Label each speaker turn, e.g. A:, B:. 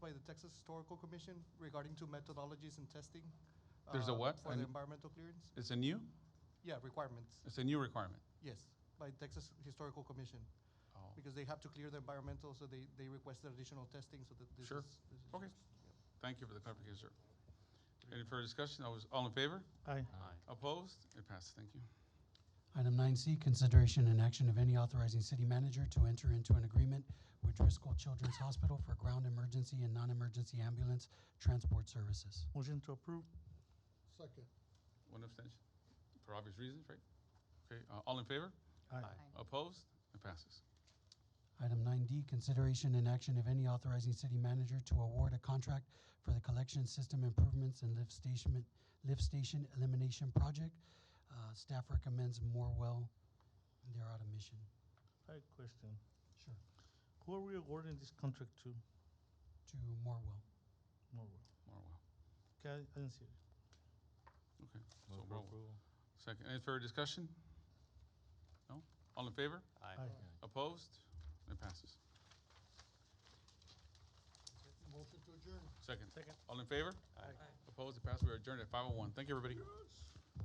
A: Texas Historical Commission regarding to methodologies and testing.
B: There's a
A: uh,
B: what?
A: For the
B: An-
A: environmental clearance.
B: It's a new,
A: Yeah, requirements,
B: it's a new requirement.
A: yes, by Texas Historical Commission,
B: Oh.
A: because they have to clear the environmental, so they, they requested additional testing, so that this is.
B: Sure.
A: this is-
B: Okay. Thank you for the clarification, sir. Any further discussion? All was- All in favor?
C: Aye.
B: Opposed? It passes. Thank you.
D: Item nine C, consideration and action of any authorizing city manager to enter into an agreement with Driscoll Children's Hospital for ground emergency and non-emergency ambulance transport services.
C: Motion to approve.
E: Second.
B: One abstention, for obvious reasons, right? Okay, uh, all in favor?
C: Aye.
B: Opposed? It passes.
D: Item nine D, consideration and action of any authorizing city manager to award a contract for the collection system improvements and lift station, lift station elimination project. Uh, staff recommends Morewell. They're out of mission.
C: I have a question.
D: Sure.
C: Who are we awarding this contract to?
D: To Morewell.
C: Morwell.
B: Morwell.
C: Okay, I didn't see it.
B: Okay, so Morwell. Second, any further discussion? No? All in favor?
C: Aye.
B: Opposed? It passes.
E: Motion to adjourn.
B: Second.
C: Second.
B: All in favor? Opposed? It passes. We are adjourned at 5:01. Thank you, everybody.